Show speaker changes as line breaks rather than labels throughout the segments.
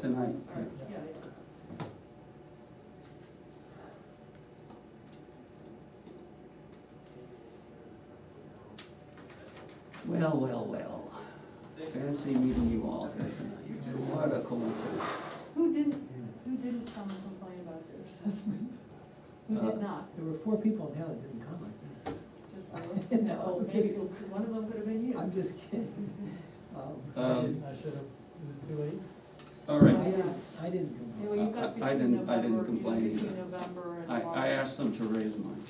tonight.
All right, yeah.
Well, well, well, fancy meeting you all here tonight, what a coincidence.
Who didn't, who didn't come and complain about their assessment? Who
Uh,
did not?
There were four people in hell that didn't come, I think.
Just, one?
No,
oh,
I'm
maybe
kidding.
one of them could have been you.
I'm just kidding. Um,
Um,
I should have, is it too late?
All
I
right,
didn't, I didn't come.
Anyway, you
I- I
got between
didn't- I didn't
November, you
complain
got
either.
between November and
I,
March.
I asked them to raise mine.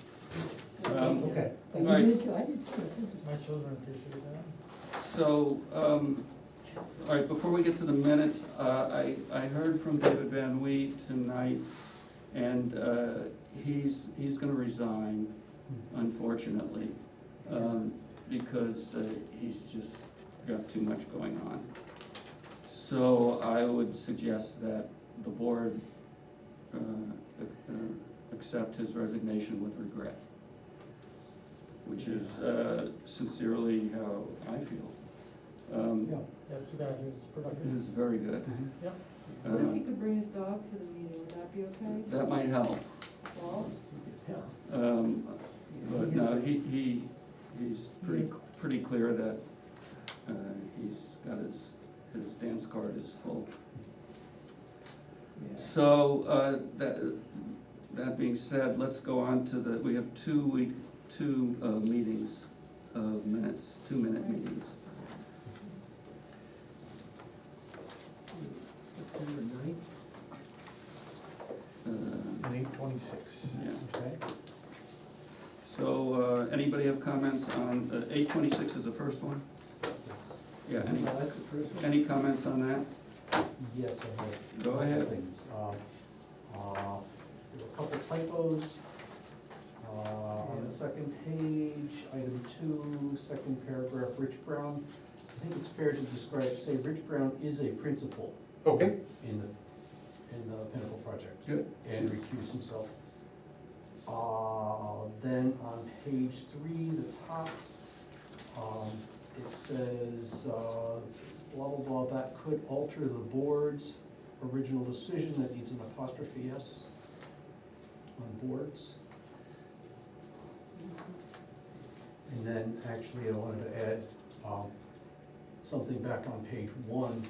Okay.
um,
Okay.
But you
Right.
did, go- I did. go, too.
My children appreciate that.
So, um, all right, before we get to the minutes, uh, I, I heard from David Van Wee tonight, and, uh, he's, he's gonna resign, unfortunately, um, because, uh, he's just got too much going on. So I would suggest that the board, uh, uh, accept his resignation with regret, which is, uh, sincerely how I feel. Um,
Yeah, that's too bad, he was
this
productive.
is very good.
Yep.
What if
Uh,
he could bring his dog to the meeting, would that be okay?
That might help,
Well,
Yeah.
um, but no, he, he, he's pretty, pretty clear that, uh, he's got his, his dance card is full.
Yeah.
So, uh, that, that being said, let's go on to the, we have two week, two, uh, meetings of minutes, two minute meetings.
September ninth,
Uh,
And eight twenty-six.
Yeah.
Okay.
So, uh, anybody have comments on, uh, eight twenty-six is the first one? Yeah, any,
oh, that's the first one.
any comments on that?
Yes, I have.
Go ahead.
Things. Um, uh, There were a couple typos. Uh, On the second page, item two, second paragraph, Rich Brown. I think it's fair to describe, say, Rich Brown is a principal
Okay,
in the, in the Pinnacle project.
Good.
and recuse himself. Uh, Then on page three, the top, um, it says, uh, blah, blah, blah, that could alter the board's original decision, that needs an apostrophe S on boards. And then, actually, I wanted to add um, something back on page one,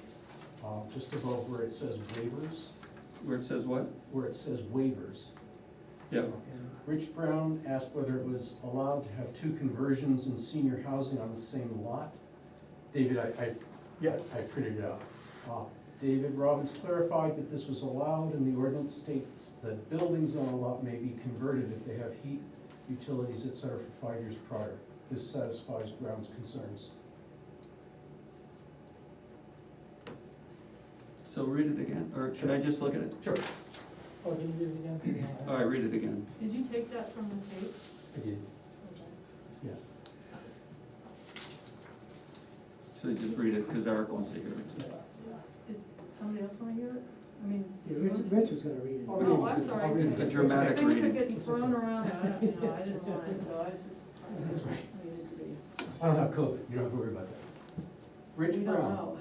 uh, just above where it says waivers,
Where it says what?
where it says waivers.
Yeah,
Rich Brown asked whether it was allowed to have two conversions in senior housing on the same lot. David, I, I.
Yeah.
I printed it out. Uh, David Robbins clarified that this was allowed and the ordinance states that buildings on a lot may be converted if they have heat, utilities, et cetera, for five years prior. This satisfies Brown's concerns.
so read it again, or should I just look at it?
Sure.
Oh, can you read it again? so we don't have-
All right, read it again.
did you take that from the tape?
Again,
Okay.
yeah.
So just read it, because Eric wants to hear it.
Did somebody else wanna hear it? I mean.
Yeah, Rich, Rich was gonna read it.
Oh, no, I'm sorry.
I'll read it.
A dramatic
Things are
reading.
getting thrown around, I don't, you know, I didn't want it, so I was just trying
That's
to
right.
read it to be.
I don't have COVID, you don't have to worry about that. Rich
We don't
Brown.
know.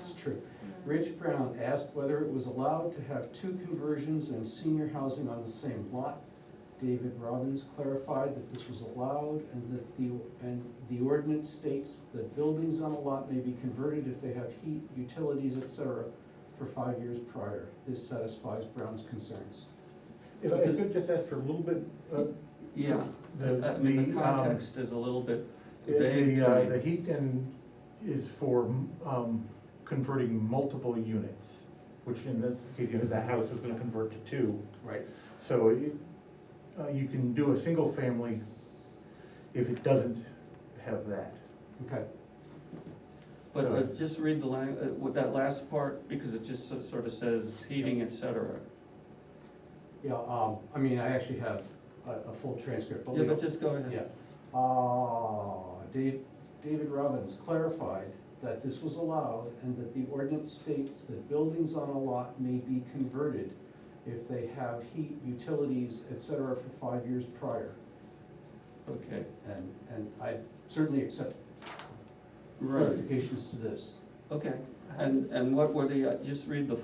It's
Yeah,
true.
yeah.
Rich Brown asked whether it was allowed to have two conversions in senior housing on the same lot. David Robbins clarified that this was allowed and that the, and the ordinance states that buildings on a lot may be converted if they have heat, utilities, et cetera, for five years prior. This satisfies Brown's concerns.
If I could just ask for a little bit, uh,
Yeah,
the,
I mean,
the,
the
um,
context is a little bit vague
the, uh,
to
the
me.
heat and is for, um, converting multiple units, which in this case, you know, the house was gonna convert to two.
Right.
So it, uh, you can do a single family if it doesn't have that.
Okay,
But
So-
uh, just read the lang, uh, with that last part, because it just so- sort of says heating, et cetera.
yeah, um, I mean, I actually have a, a full transcript, but we
Yeah,
don't-
but just go
Yeah.
ahead.
Ah, Dave, David Robbins clarified that this was allowed and that the ordinance states that buildings on a lot may be converted if they have heat, utilities, et cetera, for five years prior.
Okay,
And, and I certainly accept
right,
clarifications to this.
okay. And, and what were the, uh, just read the